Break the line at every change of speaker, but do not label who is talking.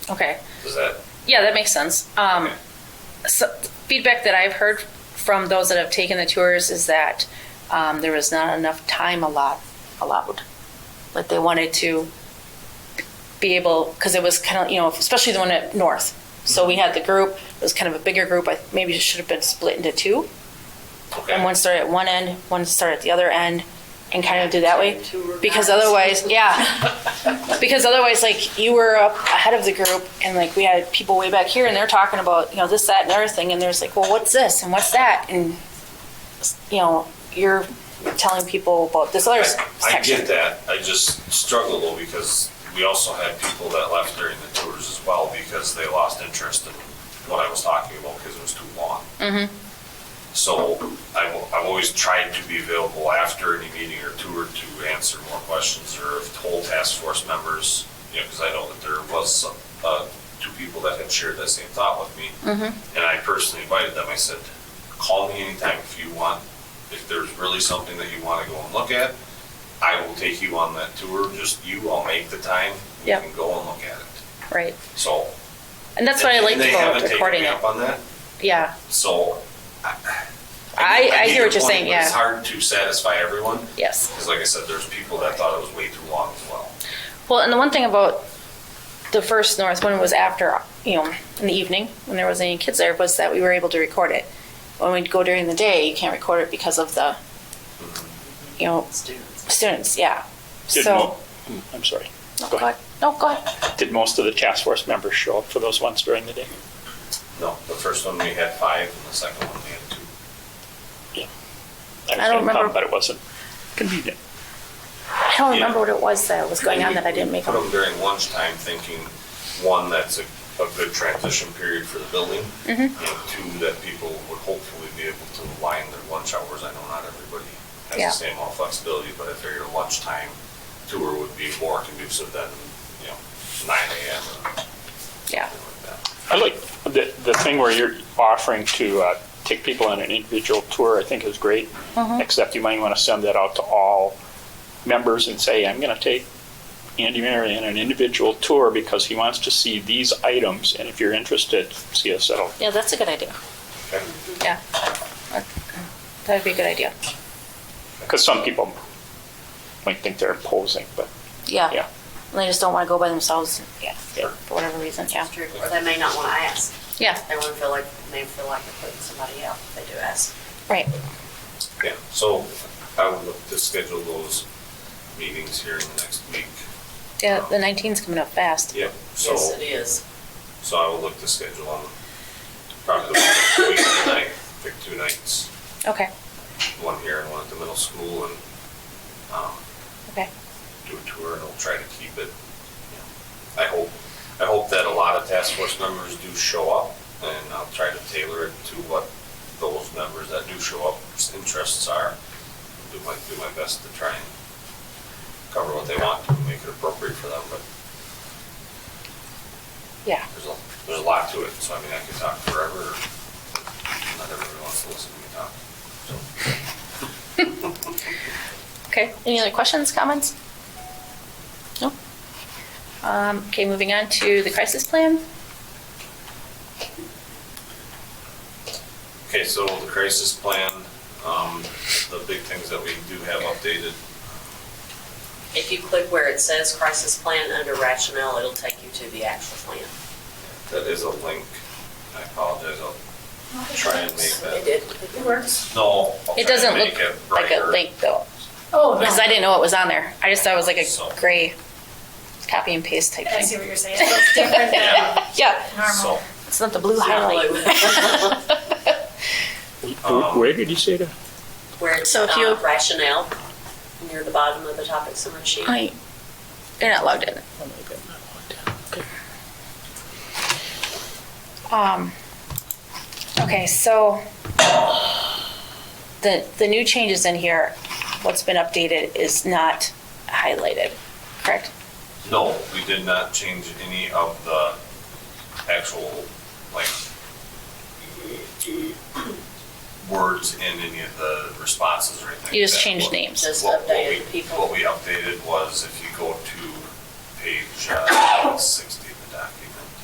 Okay.
Does that?
Yeah, that makes sense. Um,
Okay.
so feedback that I've heard from those that have taken the tours is that um, there was not enough time allowed, allowed. But they wanted to be able, because it was kind of, you know, especially the one at North. So we had the group, it was kind of a bigger group. I maybe it should have been split into two.
Okay.
And one started at one end, one started at the other end, and kind of do that way.
Two were
Because
guys.
otherwise, yeah. Because otherwise, like, you were up ahead of the group, and like, we had people way back here, and they're talking about, you know, this, that, and the other thing, and there's like, well, what's this, and what's that, and, you know, you're telling people about this other
I- I
section.
get that, I just struggle though, because we also had people that left during the tours as well, because they lost interest in what I was talking about, because it was too long. So I've, I've always tried to be available after any meeting or tour to answer more questions, or if whole task force members, you know, because I know that there was some, uh, two people that had shared that same thought with me. And I personally invited them, I said, call me anytime if you want, if there's really something that you want to go and look at, I will take you on that tour, just you, I'll make the time, you
Yep.
can go and look at it.
Right.
So.
And that's what I
and-
liked
and they
about
haven't taken
recording
me
it.
up on that,
Yeah.
so.
I, I
get
hear what you're
your point,
saying,
but It's
yeah.
hard to satisfy everyone,
Yes.
because like I said, there's people that thought it was way too long as well.
Well, and the one thing about the first North one was after, you know, in the evening when there wasn't any kids there, was that we were able to record it. When we go during the day, you can't record it because of the, you know,
Students.
students. Yeah.
Did
so,
mo- hmm, I'm sorry.
no,
Go
go
ahead.
ahead. No, go ahead.
Did most of the task force members show up for those ones during the day?
No, the first one we had five, and the second one we had two.
was
I don't
gonna come,
remember.
But it wasn't convenient.
I don't
Yeah.
remember what it was that was going on that I didn't make
Put
them.
them during lunchtime thinking, one, that's a, a good transition period for the building.
Mm-hmm.
And two, that people would hopefully be able to align their lunch hours. I know not everybody has
Yeah.
the same amount of flexibility, but I figure lunchtime tour would be more conducive than, you know, nine AM or
Yeah.
something like that.
I like the, the thing where you're offering to uh, take people on an individual tour, I think is great.
Mm-hmm.
Except you might want to send that out to all members and say, I'm going to take Andy Mary on an individual tour because he wants to see these items. And if you're interested, see us at a
Yeah, that's a good idea.
Okay.
Yeah. That would be a good idea.
Because some people might think they're imposing, but
Yeah.
yeah.
And they just don't want to go by themselves. Yeah.
Yeah.
For whatever reason. Yeah.
After, or they may not want to ask.
Yeah.
They wouldn't feel like, may feel like they're putting somebody out if they do ask.
Right.
Yeah, so I would look to schedule those meetings here in the next week.
Yeah. The 19's coming up fast.
Yep, so.
Yes, it is.
So I will look to schedule on probably the week of the ninth, pick two nights,
Okay.
one here and one at the middle school and, um,
Okay.
do a tour and I'll try to keep it, you know, I hope, I hope that a lot of task force members do show up and I'll try to tailor it to what those members that do show up's interests are. Do my, do my best to try and cover what they want to make it appropriate for them, but
Yeah.
there's a, there's a lot to it, so I mean, I could talk forever. Not everybody wants to listen to me talk, so.
Okay, any other questions, comments? No? Um, okay, moving on to the crisis plan.
Okay, so the crisis plan, um, the big things that we do have updated,
If you click where it says crisis plan under rationale, it'll take you to the actual plan.
that is a link. I apologize, I'll try and make
It
that,
did. It works.
no. I'll
It
try and
doesn't
make
look
it
like a
brighter.
link though,
Oh,
because I didn't know it was on there. I just thought it was like
So-
a gray copy and paste type
I see
thing.
what you're saying. It's different than
Yeah,
Yeah,
normal.
so,
it's not the blue
It's not
highlight.
blue.
Um,
Where did you say that?
Where it's
So if you-
uh, rationale, near the bottom of the topic summary sheet.
I, you're not logged in. Um, okay, so the, the new changes in here, what's been updated is not highlighted, correct?
no, we did not change any of the actual, like, words in any of the responses or anything. like
You just
that.
changed
What-
names.
Just
What- what
updated
we-
people.
What we updated was if you go to page uh, 60,